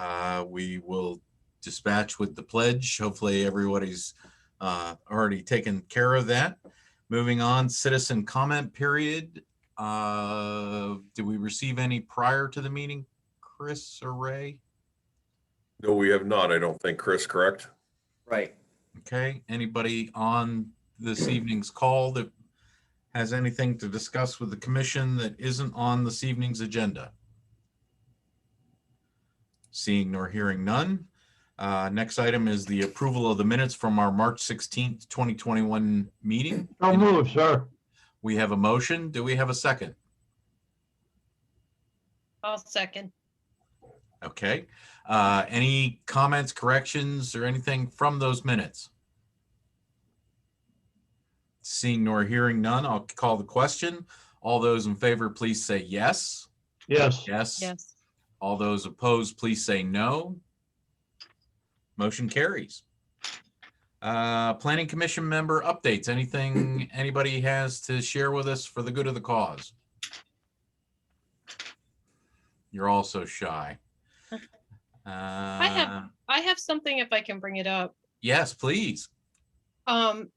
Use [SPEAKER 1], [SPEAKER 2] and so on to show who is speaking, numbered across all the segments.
[SPEAKER 1] Uh, we will dispatch with the pledge. Hopefully, everybody's uh, already taken care of that. Moving on, citizen comment period. Uh, did we receive any prior to the meeting, Chris or Ray?
[SPEAKER 2] No, we have not, I don't think, Chris, correct?
[SPEAKER 3] Right.
[SPEAKER 1] Okay, anybody on this evening's call that has anything to discuss with the commission that isn't on this evening's agenda? Seeing nor hearing none. Uh, Next item is the approval of the minutes from our March 16th, 2021 meeting.
[SPEAKER 4] So move, sir.
[SPEAKER 1] We have a motion. Do we have a second?
[SPEAKER 5] I'll second.
[SPEAKER 1] Okay. Uh, Any comments, corrections, or anything from those minutes? Seeing nor hearing none, I'll call the question. All those in favor, please say yes.
[SPEAKER 4] Yes,
[SPEAKER 1] Yes.
[SPEAKER 5] Yes.
[SPEAKER 1] All those opposed, please say no. Motion carries. Uh, Planning Commission member updates. Anything anybody has to share with us for the good of the cause? You're all so shy. Uh, I
[SPEAKER 5] have- I have something if I can bring it up.
[SPEAKER 1] Yes, please.
[SPEAKER 5] Um,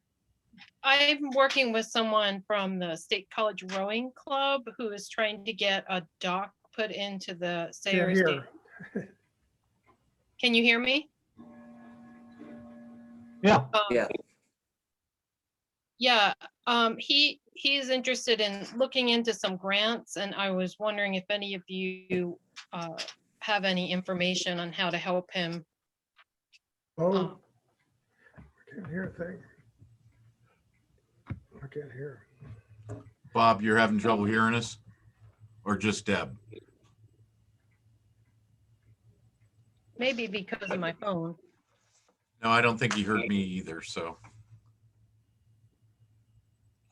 [SPEAKER 5] I'm working with someone from the State College Rowing Club who is trying to get a dock put into the
[SPEAKER 6] They're
[SPEAKER 5] Sayers. Dam.
[SPEAKER 6] here.
[SPEAKER 5] Can you hear me?
[SPEAKER 4] yeah,
[SPEAKER 5] Um,
[SPEAKER 3] Yeah.
[SPEAKER 5] Yeah, um, he, he is interested in looking into some grants and I was wondering if any of you, uh, have any information on how to help him.
[SPEAKER 6] Oh,
[SPEAKER 5] Um,
[SPEAKER 6] I can't hear a thing. I can't hear.
[SPEAKER 1] Bob, you're having trouble hearing us? Or just Deb?
[SPEAKER 5] Maybe because of my phone.
[SPEAKER 1] No, I don't think he heard me either, so.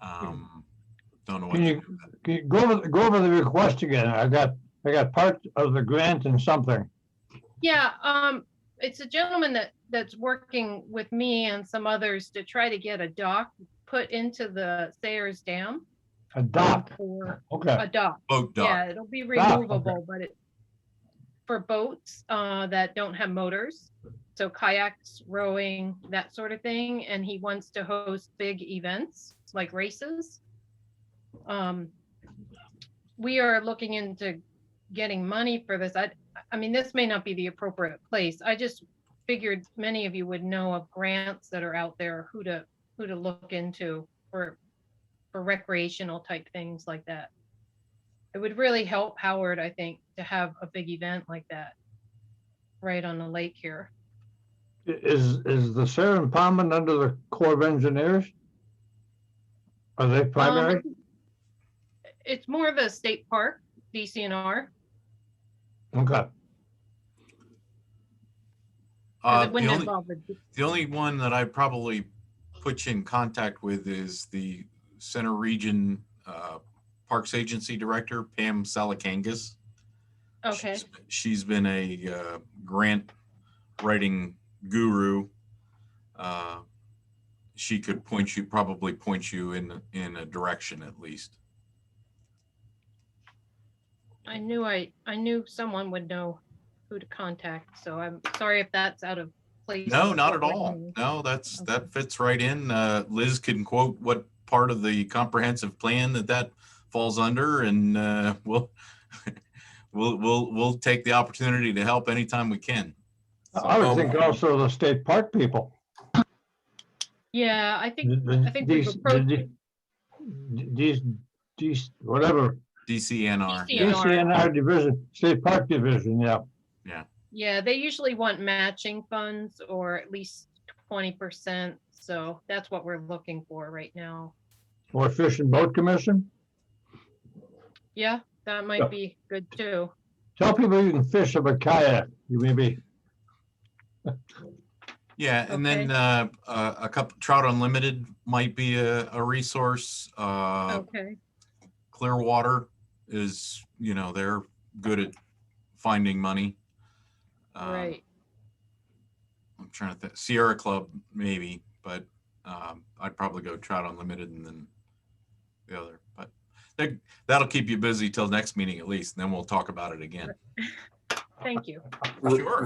[SPEAKER 1] Um, don't know what
[SPEAKER 4] Can
[SPEAKER 1] to
[SPEAKER 4] you-
[SPEAKER 1] do. with that.
[SPEAKER 4] G- go over, go over the request again. I got, I got part of the grant and something.
[SPEAKER 5] Yeah, um, it's a gentleman that, that's working with me and some others to try to get a dock put into the Sayers Dam.
[SPEAKER 4] A dock,
[SPEAKER 5] For
[SPEAKER 4] okay.
[SPEAKER 5] a dock,
[SPEAKER 1] Boat dock.
[SPEAKER 5] yeah, it'll be
[SPEAKER 4] Dock, okay.
[SPEAKER 5] removable, but it, for boats, uh, that don't have motors. So kayaks, rowing, that sort of thing, and he wants to host big events like races. Um, we are looking into getting money for this. I, I mean, this may not be the appropriate place. I just figured many of you would know of grants that are out there, who to, who to look into for, for recreational type things like that. It would really help Howard, I think, to have a big event like that right on the lake here.
[SPEAKER 4] Is, is the Sarah Palmer under the Corps of Engineers? Are they primary?
[SPEAKER 5] Um, It's more of a state park, DCNR.
[SPEAKER 4] Okay,
[SPEAKER 1] Uh,
[SPEAKER 5] because
[SPEAKER 1] the
[SPEAKER 5] it wouldn't
[SPEAKER 1] only-
[SPEAKER 5] involve the-
[SPEAKER 1] The only one that I probably put you in contact with is the Center Region uh, Parks Agency Director, Pam Salakangas.
[SPEAKER 5] Okay,
[SPEAKER 1] She's- She's been a uh, grant writing guru. Uh, She could point you, probably point you in, in a direction at least.
[SPEAKER 5] I knew I, I knew someone would know who to contact, so I'm sorry if that's out of place.
[SPEAKER 1] No,
[SPEAKER 5] with
[SPEAKER 1] not at
[SPEAKER 5] what we're
[SPEAKER 1] all.
[SPEAKER 5] doing.
[SPEAKER 1] No, that's,
[SPEAKER 5] Okay.
[SPEAKER 1] that fits right in. Uh, Liz can quote what part of the comprehensive plan that that falls under and, uh, we'll, we'll, we'll, we'll take the opportunity to help anytime we can.
[SPEAKER 4] I
[SPEAKER 1] Oh.
[SPEAKER 4] would think also the state park people.
[SPEAKER 5] Yeah, I think I think we've
[SPEAKER 4] These,
[SPEAKER 5] approached-
[SPEAKER 4] these, these, whatever,
[SPEAKER 1] DCNR.
[SPEAKER 5] DCNR.
[SPEAKER 1] yeah.
[SPEAKER 4] DCNR division, state park division, yeah.
[SPEAKER 5] Yeah, they usually want matching funds or at least twenty percent, so that's what we're looking for right now.
[SPEAKER 4] Or Fish and Boat Commission?
[SPEAKER 5] Yeah,
[SPEAKER 4] Yeah.
[SPEAKER 5] that might be good too.
[SPEAKER 4] Tell people you can fish up a kayak, you may be.
[SPEAKER 1] Yeah, and then,
[SPEAKER 5] Okay.
[SPEAKER 1] uh, a a couple, Trout Unlimited might be a, a resource. Uh,
[SPEAKER 5] Okay,
[SPEAKER 1] Clearwater is, you know, they're good at finding money. Um,
[SPEAKER 5] right.
[SPEAKER 1] I'm trying to think. Sierra Club, maybe, but um, I'd probably go Trout Unlimited and then the other. But that, that'll keep you busy till next meeting at least, and then we'll talk about it again.
[SPEAKER 5] Thank you.
[SPEAKER 1] Sure.